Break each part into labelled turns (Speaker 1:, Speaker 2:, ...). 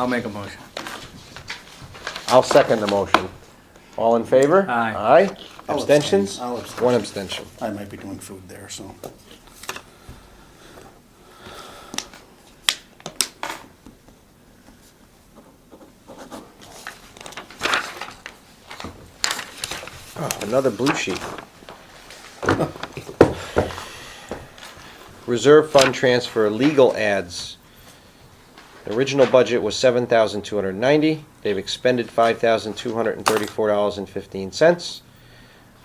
Speaker 1: I'll make a motion.
Speaker 2: I'll second the motion. All in favor?
Speaker 1: Aye.
Speaker 2: Aye?
Speaker 3: I'll
Speaker 2: Abstentions?
Speaker 3: abstain. I'll abstain.
Speaker 2: One abstention.
Speaker 3: I might be doing food there, so.
Speaker 2: Another blue sheet. Reserve fund transfer, legal ads. The original budget was seven thousand two hundred ninety. They've expended five thousand two hundred and thirty-four dollars and fifteen cents.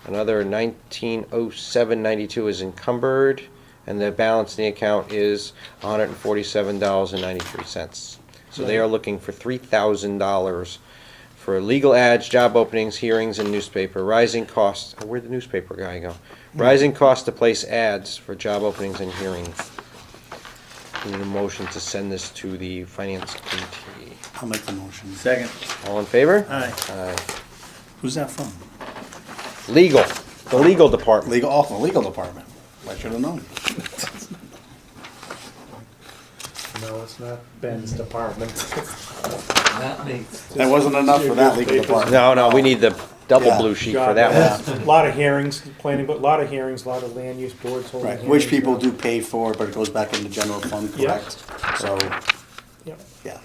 Speaker 2: Another nineteen oh seven ninety-two is encumbered, and the balance in the account is one hundred and forty-seven dollars and ninety-three cents. So they are looking for three thousand dollars for legal ads, job openings, hearings, and newspaper. Rising costs. Oh, where'd the newspaper guy go? Rising costs to place ads for job openings and hearings. We Need a motion to send this to the finance committee.
Speaker 3: I'll make the motion.
Speaker 1: Second.
Speaker 2: All in favor?
Speaker 3: Aye.
Speaker 2: Aye.
Speaker 3: Who's that from?
Speaker 2: Legal, the legal department.
Speaker 3: Legal, off the legal department. I should have known.
Speaker 4: No, it's not Ben's department.
Speaker 5: Not me.
Speaker 3: That wasn't enough for that legal department.
Speaker 2: No, no, we need the double
Speaker 3: Yeah.
Speaker 2: blue sheet for
Speaker 4: God,
Speaker 2: that
Speaker 4: that's- Lot of hearings, planning, but lot of hearings, lot of land use boards holding
Speaker 3: Right,
Speaker 4: hearings.
Speaker 3: which people do pay for, but it goes back into general fund,
Speaker 4: Yeah.
Speaker 3: correct? So,
Speaker 4: Yep.
Speaker 3: yeah.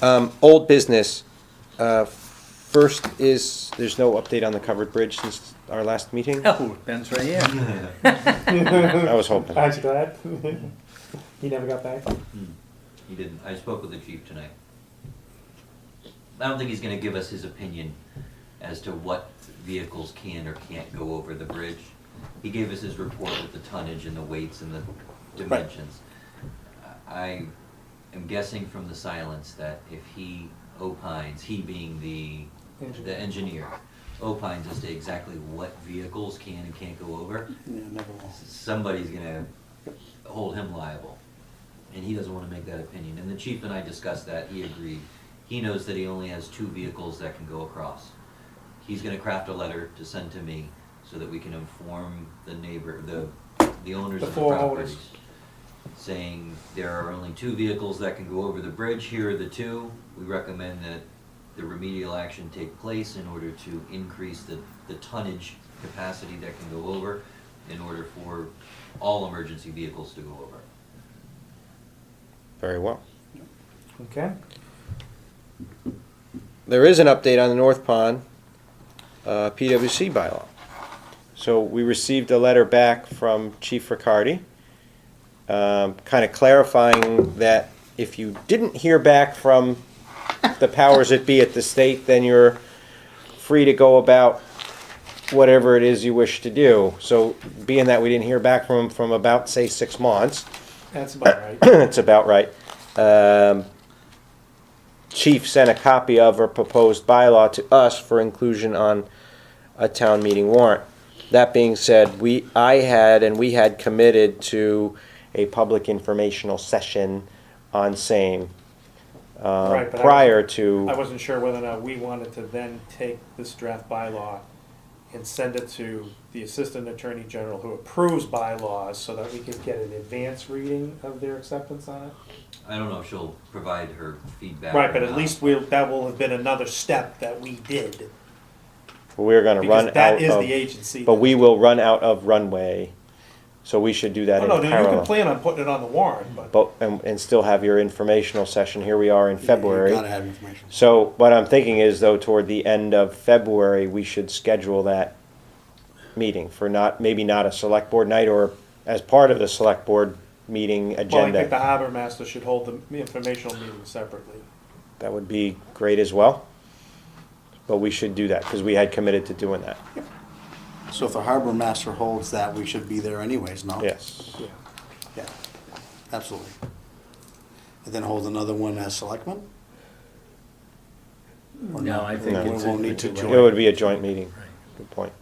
Speaker 2: one. Um, Old business. Uh, First is, there's no update on the covered bridge since our last meeting?
Speaker 1: Oh, Ben's right here.
Speaker 2: I was hoping.
Speaker 4: Aren't you glad? He never got back?
Speaker 5: He didn't. I spoke with the chief tonight. I don't think he's gonna give us his opinion as to what vehicles can or can't go over the bridge. He gave us his report with the tonnage and the weights and the dimensions. I am guessing from the silence that if he opines, he being the, the
Speaker 4: Engineer.
Speaker 5: engineer, opines as to exactly what vehicles can and can't go over,
Speaker 3: Yeah, never will.
Speaker 5: somebody's gonna hold him liable. And he doesn't wanna make that opinion, and the chief and I discussed that, he agreed. He knows that he only has two vehicles that can go across. He's gonna craft a letter to send to me, so that we can inform the neighbor, the, the owners
Speaker 4: The
Speaker 5: of the
Speaker 4: four
Speaker 5: properties.
Speaker 4: owners.
Speaker 5: Saying there are only two vehicles that can go over the bridge, here are the two, we recommend that the remedial action take place in order to increase the, the tonnage capacity that can go over in order for all emergency vehicles to go over.
Speaker 2: Very well.
Speaker 4: Okay.
Speaker 2: There is an update on the North Pond uh, PWC bylaw. So we received a letter back from Chief Riccardi, um, kind of clarifying that if you didn't hear back from the powers that be at the state, then you're free to go about whatever it is you wish to do. So being that we didn't hear back from them from about, say, six months,
Speaker 4: That's
Speaker 3: Uh,
Speaker 4: about right.
Speaker 2: it's about right. Um, Chief sent a copy of her proposed bylaw to us for inclusion on a town meeting warrant. That being said, we, I had and we had committed to a public informational session on same uh,
Speaker 4: Right, but I-
Speaker 2: prior
Speaker 4: I
Speaker 2: to,
Speaker 4: wasn't sure whether or not we wanted to then take this draft bylaw and send it to the Assistant Attorney General who approves bylaws so that we could get an advance reading of their acceptance on it.
Speaker 5: I don't know if she'll provide her feedback.
Speaker 4: Right,
Speaker 5: or
Speaker 4: but at
Speaker 5: not.
Speaker 4: least we'll, that will have been another step that we did.
Speaker 2: we were gonna run
Speaker 4: Because that
Speaker 2: out
Speaker 4: is the
Speaker 2: of,
Speaker 4: agency.
Speaker 2: but we will run out of runway, so we should do that
Speaker 4: Oh,
Speaker 2: in
Speaker 4: no, you can
Speaker 2: parallel.
Speaker 4: plan on putting it on the warrant, but.
Speaker 2: But, and, and still have your informational session, here we are in February.
Speaker 3: You gotta have information.
Speaker 2: So what I'm thinking is though, toward the end of February, we should schedule that meeting for not, maybe not a select board night or as part of the select board meeting
Speaker 4: Well, I think the
Speaker 2: agenda.
Speaker 4: harbor master should hold the informational meeting separately.
Speaker 2: That would be great as well. But we should do that because we had committed to doing that.
Speaker 3: So if the harbor master holds that, we should be there anyways, no?
Speaker 2: Yes.
Speaker 4: Yeah.
Speaker 3: Yeah, absolutely. And then hold another one as selectmen? Or
Speaker 1: No, I think
Speaker 2: No.
Speaker 1: it's.
Speaker 3: We won't need to
Speaker 1: it's a
Speaker 2: It
Speaker 3: join.
Speaker 2: would be a joint meeting. Good point.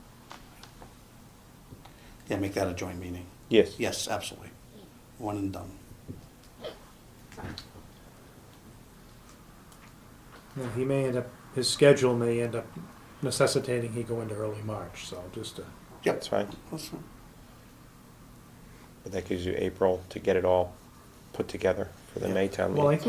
Speaker 3: Yeah, make that a joint meeting.
Speaker 2: Yes.
Speaker 3: Yes, absolutely. One and done.
Speaker 4: Yeah, he may end up, his schedule may end up necessitating he go into early March, so just, uh,
Speaker 3: Yep.
Speaker 2: That's fine.
Speaker 3: That's fine.
Speaker 2: But that gives you April to get it all put together for
Speaker 6: for the Maytown meeting.
Speaker 2: Well, I think